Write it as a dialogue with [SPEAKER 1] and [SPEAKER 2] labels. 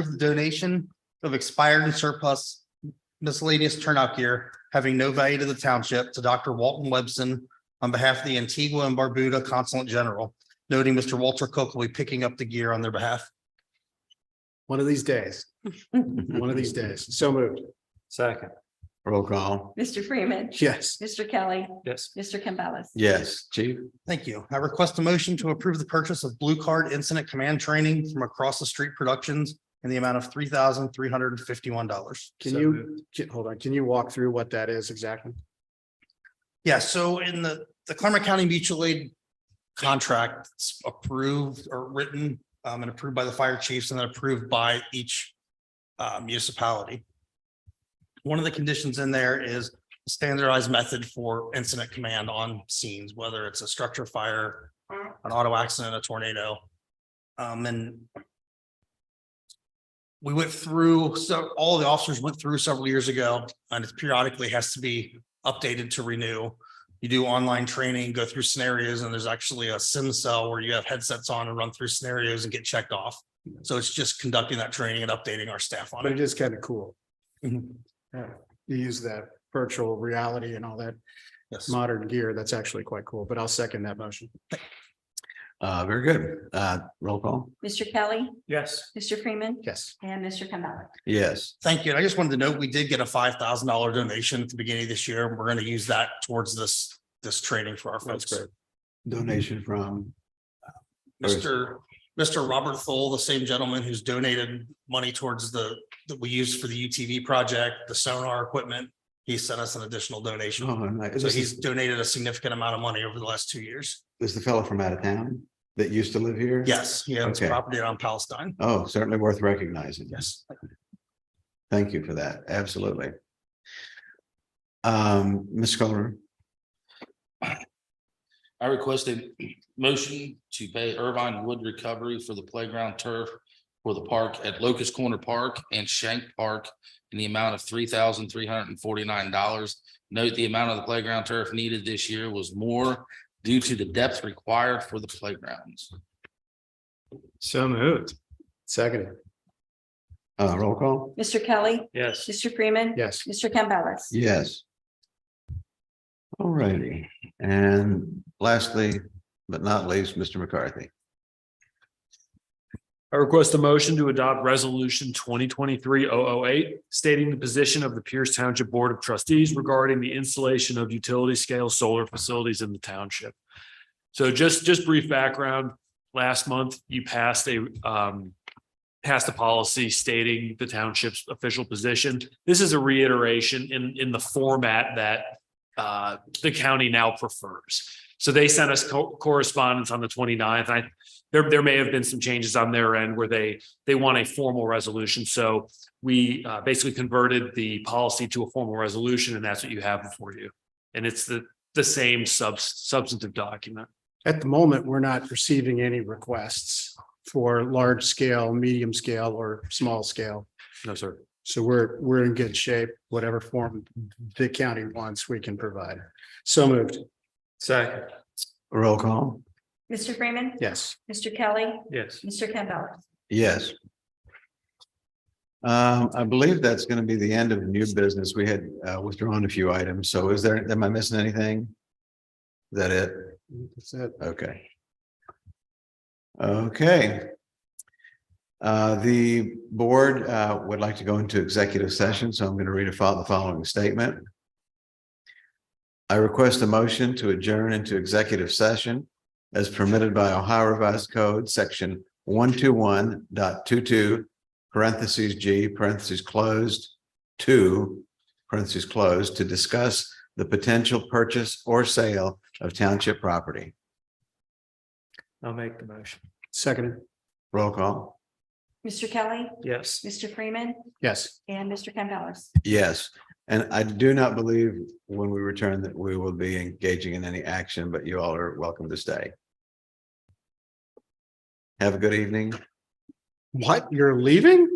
[SPEAKER 1] approve the donation of expired and surplus miscellaneous turnout gear having no value to the township to Dr. Walton Webson on behalf of the Antigua and Barbuda Consulate General, noting Mr. Walter Cook will be picking up the gear on their behalf.
[SPEAKER 2] One of these days, one of these days. So moved.
[SPEAKER 3] Second,
[SPEAKER 4] Roll call.
[SPEAKER 5] Mr. Freeman.
[SPEAKER 2] Yes.
[SPEAKER 5] Mr. Kelly.
[SPEAKER 3] yes,
[SPEAKER 5] Mr. Campbellis.
[SPEAKER 4] Yes, chief.
[SPEAKER 1] Thank you. I request a motion to approve the purchase of Blue Card Incident Command Training from Across the Street Productions in the amount of three thousand three hundred and fifty-one dollars.
[SPEAKER 2] Can
[SPEAKER 3] So
[SPEAKER 2] you, can- hold on, can you walk through what that is exactly?
[SPEAKER 1] Yeah, so in the, the Clermont County Mutual Aid contract it's approved or written um, and approved by the fire chiefs and then approved by each uh, municipality. One of the conditions in there is standardized method for incident command on scenes, whether it's a structure fire, an auto accident, a tornado. Um, and we went through, so all the officers went through several years ago and it periodically has to be updated to renew. You do online training, go through scenarios, and there's actually a sim cell where you have headsets on and run through scenarios and get checked off. So it's just conducting that training and updating our staff on
[SPEAKER 2] But
[SPEAKER 1] it.
[SPEAKER 2] it is kind of cool.
[SPEAKER 1] Mhm.
[SPEAKER 2] You use that virtual reality and all that
[SPEAKER 1] Yes.
[SPEAKER 2] modern gear. That's actually quite cool, but I'll second that motion.
[SPEAKER 4] Uh, very good. Uh, roll call.
[SPEAKER 5] Mr. Kelly.
[SPEAKER 3] yes,
[SPEAKER 5] Mr. Freeman.
[SPEAKER 2] Yes.
[SPEAKER 5] And Mr. Campbellis.
[SPEAKER 4] Yes,
[SPEAKER 1] Thank you. And I just wanted to note, we did get a five thousand dollar donation at the beginning of this year. and We're going to use that towards this, this training for our
[SPEAKER 2] That's
[SPEAKER 1] folks.
[SPEAKER 2] great.
[SPEAKER 4] donation from, Very-
[SPEAKER 1] Mr. Mr. Robert Thole, the same gentleman who's donated money towards the, that we used for the UTV project, the sonar equipment. He sent us an additional donation.
[SPEAKER 4] oh, nice.
[SPEAKER 1] So
[SPEAKER 4] this
[SPEAKER 1] he's
[SPEAKER 4] is,
[SPEAKER 1] donated a significant amount of money over the last two years.
[SPEAKER 4] this is the fellow from out of town that used to live here?
[SPEAKER 1] Yes, he owns
[SPEAKER 4] Okay.
[SPEAKER 1] property on Palestine.
[SPEAKER 4] Oh, certainly worth recognizing.
[SPEAKER 1] Yes.
[SPEAKER 4] Thank you for that. Absolutely. Um, Ms. Scholar,
[SPEAKER 6] I requested motion to pay Irvine Wood Recovery for the playground turf for the park at Locust Corner Park and Shank Park in the amount of three thousand three hundred and forty-nine dollars. Note the amount of the playground turf needed this year was more due to the depth required for the playgrounds.
[SPEAKER 2] So moved. Seconded.
[SPEAKER 4] uh, roll call.
[SPEAKER 5] Mr. Kelly.
[SPEAKER 3] yes,
[SPEAKER 5] Mr. Freeman.
[SPEAKER 2] Yes.
[SPEAKER 5] Mr. Campbellis.
[SPEAKER 4] Yes. All righty. And lastly, but not least, Mr. McCarthy.
[SPEAKER 3] I request a motion to adopt resolution twenty twenty-three oh oh eight, stating the position of the Pierce Township Board of Trustees regarding the installation of utility scale solar facilities in the township. So just, just brief background, last month you passed a, um, passed a policy stating the township's official position. This is a reiteration in, in the format that, uh, the county now prefers. So they sent us co- correspondence on the 29th. I, there, there may have been some changes on their end where they, they want a formal resolution. So we uh, basically converted the policy to a formal resolution and that's what you have before you. And it's the, the same sub, substantive document.
[SPEAKER 2] At the moment, we're not receiving any requests for large scale, medium scale, or small scale.
[SPEAKER 3] No, sir.
[SPEAKER 2] So we're, we're in good shape, whatever form the county wants, we can provide. So moved,
[SPEAKER 3] Second.
[SPEAKER 4] Roll call.
[SPEAKER 5] Mr. Freeman.
[SPEAKER 2] yes.
[SPEAKER 5] Mr. Kelly.
[SPEAKER 3] Yes.
[SPEAKER 5] Mr. Campbellis.
[SPEAKER 4] Yes. Um, I believe that's going to be the end of the new business. We had uh, withdrawn a few items. So is there, am I missing anything? Is that it?
[SPEAKER 2] That's it.
[SPEAKER 4] Okay. Okay. Uh, the board, uh, would like to go into executive session, so I'm going to read a fol- the following statement. I request a motion to adjourn into executive session as permitted by Ohio Revised Code, section one two one dot two two, parentheses G, parentheses closed, two, parentheses closed, to discuss the potential purchase or sale of township property.
[SPEAKER 3] I'll make the motion.
[SPEAKER 2] Seconded,
[SPEAKER 4] Roll call.
[SPEAKER 5] Mr. Kelly.
[SPEAKER 3] Yes.
[SPEAKER 5] Mr. Freeman.
[SPEAKER 2] yes.
[SPEAKER 5] And Mr. Campbellis.
[SPEAKER 4] Yes, and I do not believe when we return that we will be engaging in any action, but you all are welcome to stay. Have a good evening.
[SPEAKER 2] What, you're leaving?